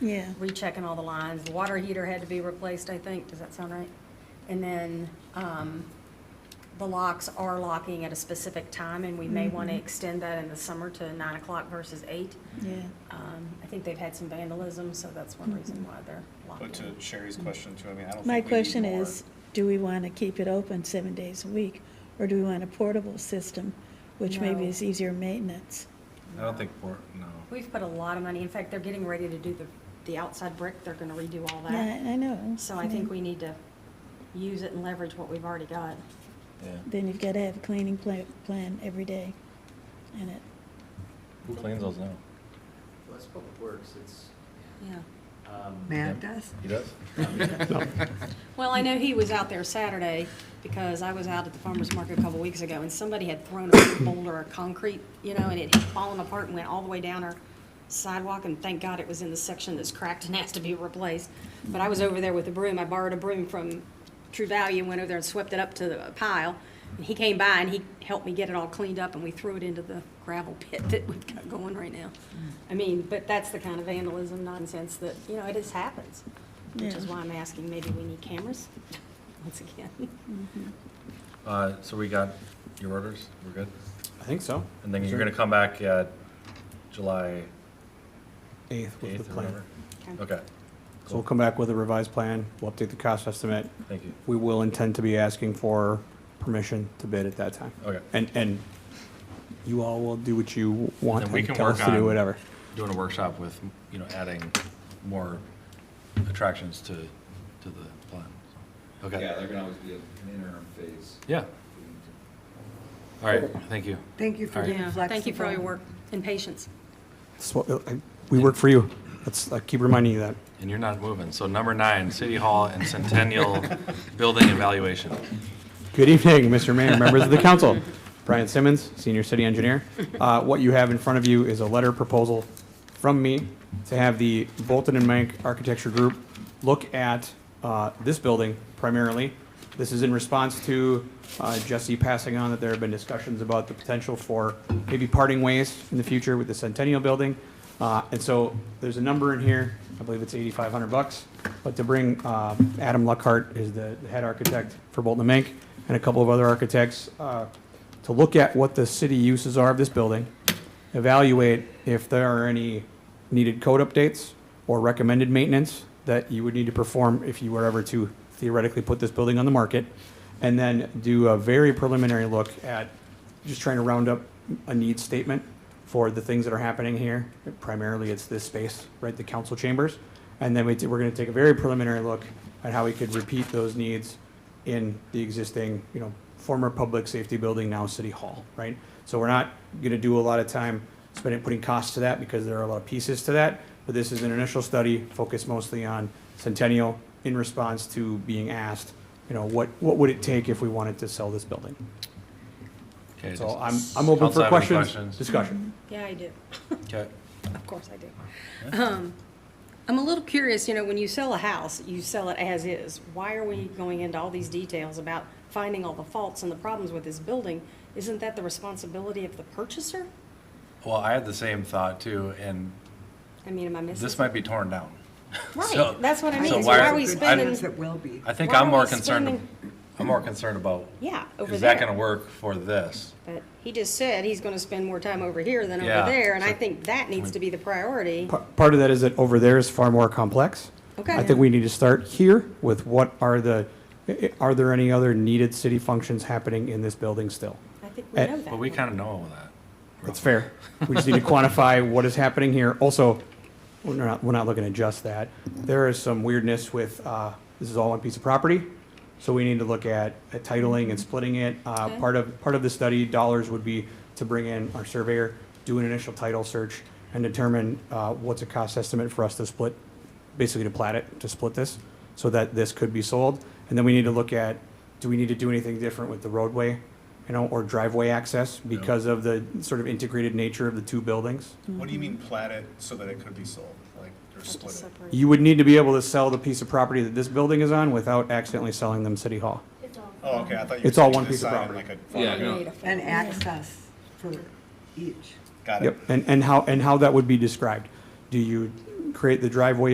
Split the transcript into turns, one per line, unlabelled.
Yeah.
rechecking all the lines. The water heater had to be replaced, I think. Does that sound right? And then, um, the locks are locking at a specific time and we may want to extend that in the summer to nine o'clock versus eight.
Yeah.
Um, I think they've had some vandalism, so that's one reason why they're
But uh,
locked
to
in.
Sherry's question too, I mean, I don't think we
My
need
question
more.
is, do we want to keep it open seven days a week? Or do we want a portable system, which maybe
No.
is easier maintenance?
I don't think, port- no.
We've put a lot of money, in fact, they're getting ready to do the, the outside brick, they're gonna redo all
Yeah,
that.
I I know.
So I think we need to use it and leverage what we've already got.
Then you've got to have a cleaning plan, plan every day in it.
Who cleans those now?
Well, it's public works, it's,
Yeah.
um.
Matt
Yeah.
does.
He does?
Well, I know he was out there Saturday because I was out at the farmer's market a couple weeks ago and somebody had thrown a big boulder of concrete, you know, and it had fallen apart and went all the way down our sidewalk and thank God it was in the section that's cracked and has to be replaced. But I was over there with a broom. I borrowed a broom from True Value and went over there and swept it up to the pile. And he came by and he helped me get it all cleaned up and we threw it into the gravel pit that we've got going right now. I mean, but that's the kind of vandalism nonsense that, you know, it just happens. Which is
Yeah.
why I'm asking, maybe we need cameras, once again.
Uh, so we got your orders, we're good?
I think so.
And then you're gonna come back at July
Eighth was the
eighth or
plan.
whatever? Okay,
So we'll come back with a revised plan. We'll update the cost estimate.
thank you.
We will intend to be asking for permission to bid at that time.
Okay.
And, and you all will do what you want
And we
and
can
tell us
work
to
on
do whatever.
Doing a workshop with, you know, adding more attractions to, to the plan. so.
Yeah,
Okay,
there can always be an interim phase.
yeah, all right, thank you.
Thank you for
All right.
being
Yeah,
flexible.
thank you for all your work and patience.
That's what- I- We work for you. Let's, I keep reminding you that.
And you're not moving. So number nine, City Hall and Centennial Building Evaluation.
Good evening, Mr. Mayor, members of the council. Brian Simmons, Senior City Engineer. Uh, What you have in front of you is a letter proposal from me to have the Bolton and Mank Architecture Group look at uh, this building primarily. This is in response to uh, Jesse passing on that there have been discussions about the potential for maybe parting ways in the future with the Centennial Building. Uh, And so there's a number in here, I believe it's 8,500 bucks, but to bring uh, Adam Luckhart is the the head architect for Bolton and Mank, and a couple of other architects, uh, to look at what the city uses are of this building, evaluate if there are any needed code updates or recommended maintenance that you would need to perform if you were ever to theoretically put this building on the market, and then do a very preliminary look at just trying to round up a needs statement for the things that are happening here. Primarily, it's this space, right, the council chambers. And then we, t- we're gonna take a very preliminary look at how we could repeat those needs in the existing, you know, former public safety building, now City Hall, right? So we're not gonna do a lot of time spending, putting costs to that because there are a lot of pieces to that. But this is an initial study focused mostly on Centennial in response to being asked, you know, what, what would it take if we wanted to sell this building?
Okay,
So
just-
I'm, I'm open
Council have
for
any
questions,
questions?
discussion.
Yeah, I do.
Okay.
Of course I do. Um, I'm a little curious, you know, when you sell a house, you sell it as is. Why are we going into all these details about finding all the faults and the problems with this building? Isn't that the responsibility of the purchaser?
Well, I had the same thought too, and
I mean, am I missing?
this might be torn down. so-
Right, that's what I mean.
so
So
why
why
are-
are we
I-
spending?
Things that will be.
I think
Why
I'm
are
more
we
concerned,
spending-
I'm more concerned about,
Yeah, over there.
is that gonna work for this?
But he just said he's gonna spend more time over here than over
Yeah,
there, and I
so-
think that needs to be the priority.
Pa- Part of that is that over there is far more complex.
Okay.
I think we need to start here with what are the, i- i- are there any other needed city functions happening in this building still?
I think we
Eh,
know that.
But we kinda know that.
That's fair. We just need to quantify what is happening here. Also, we're not, we're not looking at just that. There is some weirdness with, uh, this is all one piece of property. So we need to look at at titling and splitting it. Uh,
Okay.
part of, part of the study dollars would be to bring in our surveyor, do an initial title search and determine, uh, what's a cost estimate for us to split, basically to plat it, to split this, so that this could be sold. And then we need to look at, do we need to do anything different with the roadway, you know, or driveway access because of the sort of integrated nature of the two buildings?
What do
Mm-hmm.
you mean plat it so that it could be sold, like, or split it?
You would need to be able to sell the piece of property that this building is on without accidentally selling them City Hall.
Oh, okay, I thought you were.
It's all
saying
one
this
piece of
side and
property.
Like a,
And access for each.
got it.
Yep, and, and how, and how that would be described. Do you create the driveway